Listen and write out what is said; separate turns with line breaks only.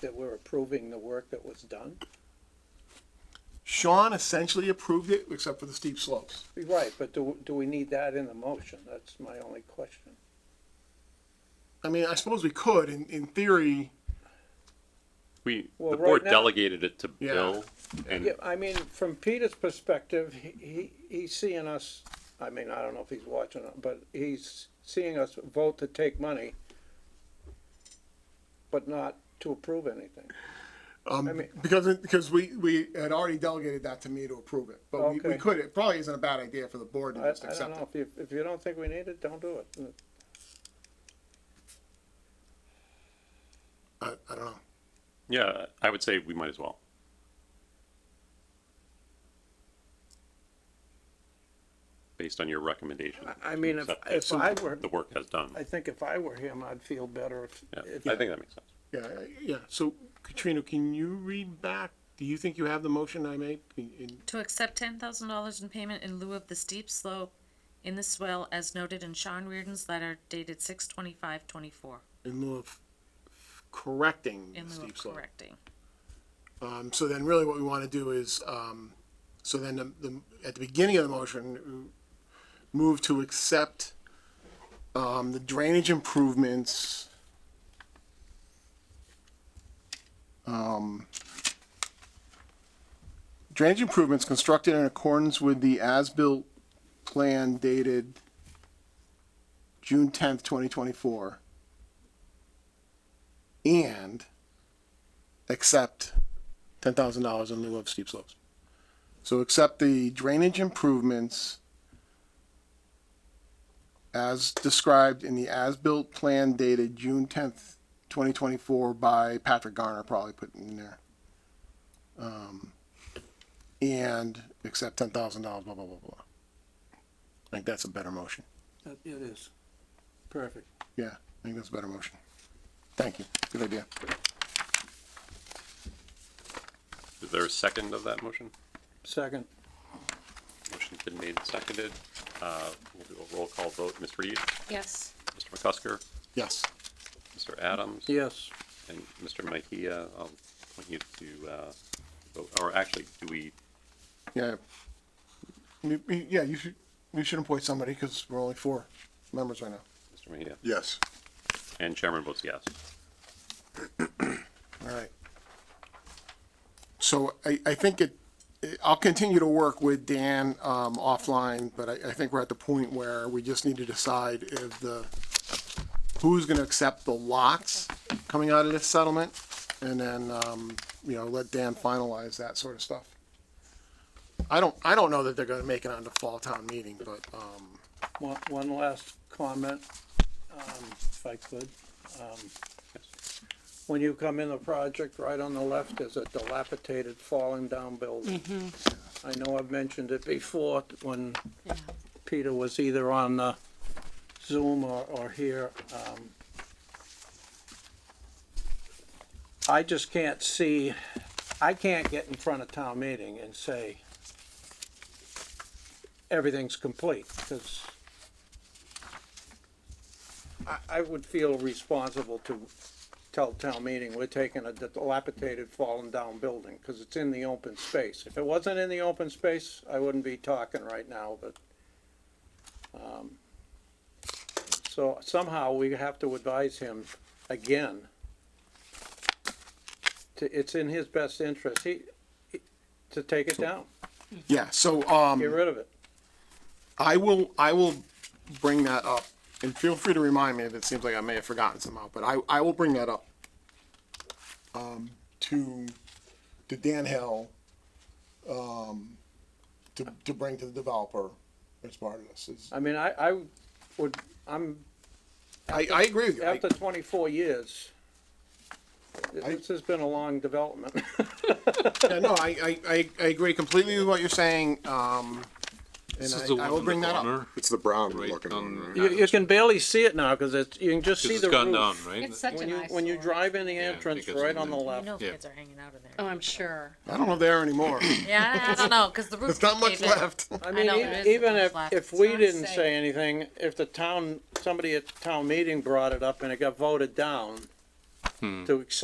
that we're approving the work that was done?
Sean essentially approved it, except for the steep slopes.
Right, but do, do we need that in the motion? That's my only question.
I mean, I suppose we could, in, in theory,
We,
Well,
the
right
board
now-
delegated it to
Yeah.
Bill,
Yeah,
and
I mean, from Peter's perspective, he, he, he's seeing us, I mean, I don't know if he's watching, it, but he's seeing us vote to take money, but not to approve anything.
um,
I mean-
because because we, we had already delegated that to me to approve it, but we, we
Okay.
could. It probably isn't a bad idea for the
Mm,
board to
I,
just
I don't
accept it.
know, if you, if you don't think we need it, don't do it.
I, I don't know.
yeah, I would say we might as well. Based on your recommendation.
I- I mean, if-
Accept
if
it.
I were-
The work has done.
I think if I were him, I'd feel better if.
Yeah,
if-
I think that makes sense.
Yeah, I- yeah. So, Katrina, can you read back? Do you think you have the motion I made? In- in-
To accept ten thousand dollars in payment in lieu of the steep slope in the swell as noted in Sean Reardon's letter dated six twenty-five twenty-four,
in lieu of correcting
in
the
lieu of
steep slope.
correcting.
Um, so then really what we want to do is, um, so then the, the, at the beginning of the motion, uh, move to accept, um, the drainage improvements. Um, drainage improvements constructed in accordance with the as-built plan dated June tenth, twenty twenty-four. And accept ten thousand dollars in lieu of steep slopes. So accept the drainage improvements as described in the as-built plan dated June tenth, twenty twenty-four by Patrick Garner, probably put in there. Um, and accept ten thousand dollars, blah, blah, blah, blah. I think that's a better motion.
It is. Perfect.
Yeah, I think that's a better motion. Thank you. Good idea.
Is there a second of that motion?
Second,
Motion's been made and seconded. Uh, we'll do a roll call vote. Ms. Reed,
Yes.
Mr. McCusker,
Yes.
Mr. Adams,
yes,
and Mr. Mejia. I'll point you to, uh, vote, or actually, do we,
Yeah. You- you- Yeah, you should, you should appoint somebody because we're only four members right now.
Mr. Mejia?
Yes.
And chairman votes yes.
All right. So I, I think it, I'll continue to work with Dan, um, offline, but I, I think we're at the point where we just need to decide if the, who's gonna accept the lots coming out of this settlement? And then, um, you know, let Dan finalize that sort of stuff. I don't, I don't know that they're gonna make it on the fall town meeting, but, um,
one, one last comment, um, if I could. Um, When you come in the project, right on the left is a dilapidated, falling down building. I know I've mentioned it before, when Peter was either on uh, Zoom or, or here. um, I just can't see, I can't get in front of town meeting and say everything's complete, because I, I would feel responsible to tell town meeting, we're taking a dilapidated, fallen down building, because it's in the open space. If it wasn't in the open space, I wouldn't be talking right now, but, um, so somehow we have to advise him again. To, it's in his best interest, he, he- to take it down,
yeah, so, um.
get rid of it.
I will, I will bring that up, and feel free to remind me if it seems like I may have forgotten somehow, but I, I will bring that up. Um, to, to Dan Hill, um, to, to bring to the developer as part of this. It's-
I mean, I, I would, I'm
I, I agree with you. I-
after twenty-four years,
I-
this has been a long development.
Yeah, no, I, I, I, I agree completely with what you're saying, um, and
This is the
I, I
one
will
in the
bring that up.
corner,
It's the brown
Right
looking
on-
one. right?
You, you can barely see it now, cause it's, you can just
'cause
see
it's
the
gone down,
roof.
right?
It's such
When
an
you,
eyesore.
when you drive in the
I
entrance,
think it's
right on the
something-
Oh,
You
left,
know
Yeah.
kids are hanging out in
Oh,
there.
I'm sure.
I don't know if they're anymore.
Yeah, I don't know, cause the roof.
There's not much
caved in.
left.
I mean,
know,
e-
there is
even
nothing
if,
left.
if
It's
we
not
didn't
safe.
say anything, if the
Hmm.
town, somebody at town meeting brought it up and it got voted down to accept